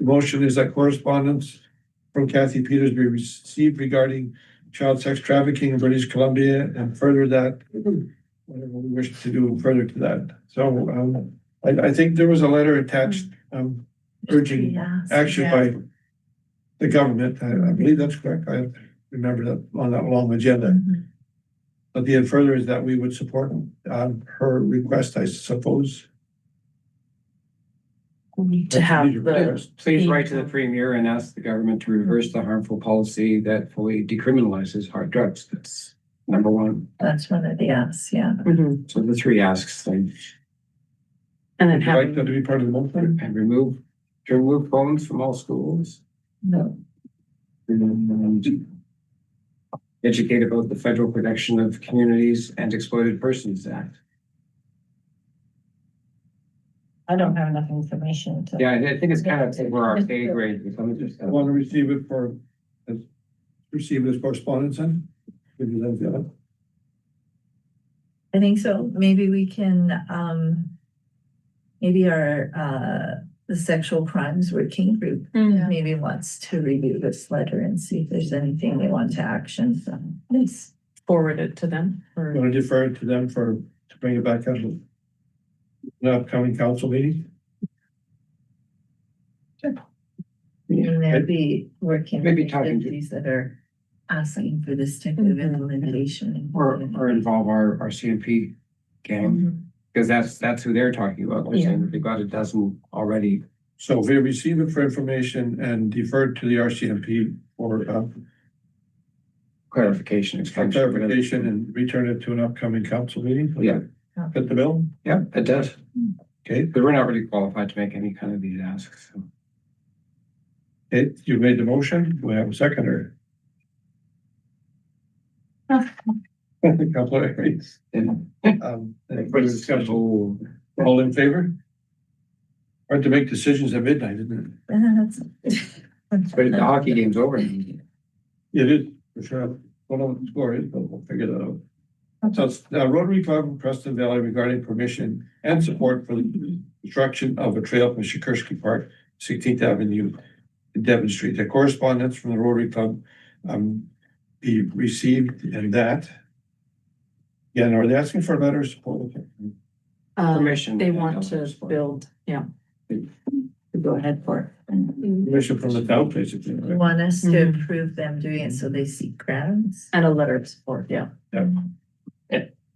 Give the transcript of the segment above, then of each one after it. motion is that correspondence from Kathy Peters be received regarding child sex trafficking in British Columbia and further that whatever we wish to do further to that. So um, I, I think there was a letter attached um, urging Yes. action Yeah. by the government. I, I believe that's correct. I remember that on that long agenda. Mhm. But the further is that we would support um, her request, I suppose. We need to have the, Please write to the premier and ask the government to reverse the harmful policy that fully decriminalizes hard drugs. That's number one. that's one of the yes, yeah. Mhm. So the three asks, then, And then Would you like having, that to be part of the motion? and remove, to remove phones from all schools. No, and Educate about the Federal Protection of Communities and Exploited Persons Act. I don't have enough information to. Yeah, I I think it's kind of over our pay grade. Let me just- uh, I want to receive it for, as, receive it as correspondence and give you that, yeah. I think so. Maybe we can, um, maybe our, uh, the sexual crimes working group Mm. maybe wants to review this letter and see if there's anything they want to action, so. Please. forward it to them I'm or going to defer it to them for, to bring it back up. in The upcoming council meeting. And they'll be working with Maybe talking to- agencies that are asking for this type of Mm-hmm. implementation. Or, or involve our, our CMP Mm-hmm. gang, Mhm. because that's, that's who they're talking about. They're saying that they've got a dozen already So we receive it for information and defer it to the RCMP for, uh, clarification. extension, whatever. clarification and return it to an upcoming council meeting. Yeah. Fit the bill? Yeah, it does. Okay, But we're not really qualified to make any kind of these asks. so. okay, you made the motion. Do we have a seconder? Councilor Harris, And um, any like, further what's discussion? schedule? All in favor? Hard to make decisions at midnight, isn't That's- But the hockey game's over. it? It is, for sure. Don't know what the score is, but we'll figure that out. So it's, uh, Rotary Club of Preston Valley regarding permission and support for the construction of a trail from Shakursky Park, Sixteenth Avenue, to Devon Street. The correspondence from the Rotary Club, um, be received and that. Yeah, and are they asking for a letter of support? um, Permission. They want to build, yeah. Go ahead for it. Permission from the town, basically. You right? want us to Mm-hmm. Mhm. approve them doing it so they seek grants? And a letter of support, yeah.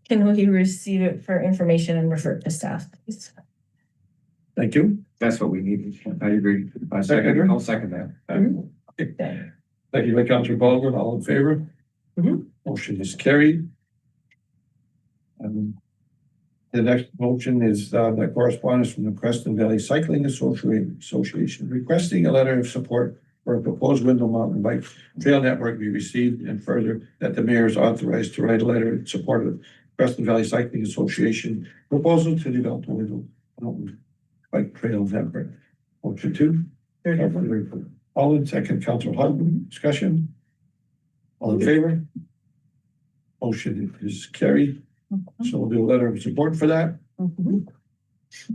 Can we receive it for information and refer it to staff, please? Thank you. That's what we need. I agree. I second, Seconder? I'll second that. Thank you, by Councilor Baldwin, all in favor? Mhm. Motion is carried. Um, The next motion is uh, the correspondence from the Creston Valley Cycling Associ- Association requesting a letter of support for a proposed Window Mountain Bike Trail Network be received and further that the mayor is authorized to write a letter in support of Creston Valley Cycling Association proposal to develop a Window Mountain Bike Trail Network. Motion two. All in second, Council Hogan, discussion? All in favor? Motion is carried, so we'll do a letter of support for that. Mm-hmm.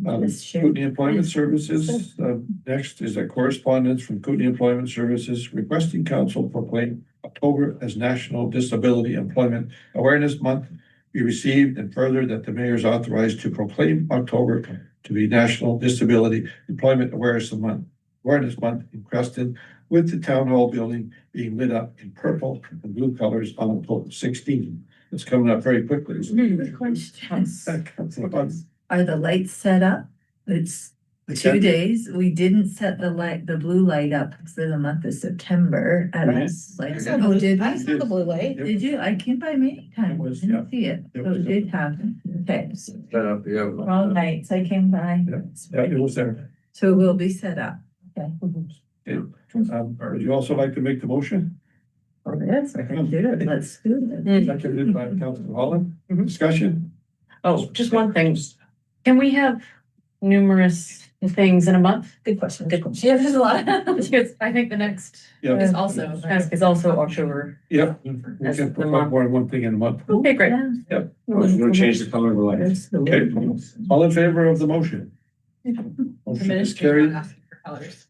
Um, Yes, sure. Kootenai Employment Services, uh, next is a correspondence from Kootenai Employment Services requesting council proclaim October as National Disability Employment Awareness Month be received and further that the mayor is authorized to proclaim October to be National Disability Employment Awareness Month, Awareness Month in Creston, with the town hall building being lit up in purple and blue colors on October sixteen. It's coming up very quickly. Hmm. Questions? Councilor Are the lights set up? It's two Okay. days. We didn't set the light, the blue light up for the month of September. And I was like, Yes. oh, did I we? saw the blue light. Did you? I came by many times. was, Didn't see it. It So was- it did happen. Okay. so All Baldwin. nights I came by. Yeah. Yeah, it was there. So it will be set up. Um, would you also like to make the motion? Um, Oh, yes, I can do it. Let's do it. Seconded by Councilor Holland, Mhm. discussion? Oh, just one thing. Can we have numerous things in a month? Good question, good question. Yeah, there's a lot. Because I think the next Yeah. Is also. task is also October. Yep. We can put up more than one thing in a month. Okay, great. Yeah. We'll Oh, change the color of the lights. That's the Okay. way. All in favor of the motion? Motion is carried.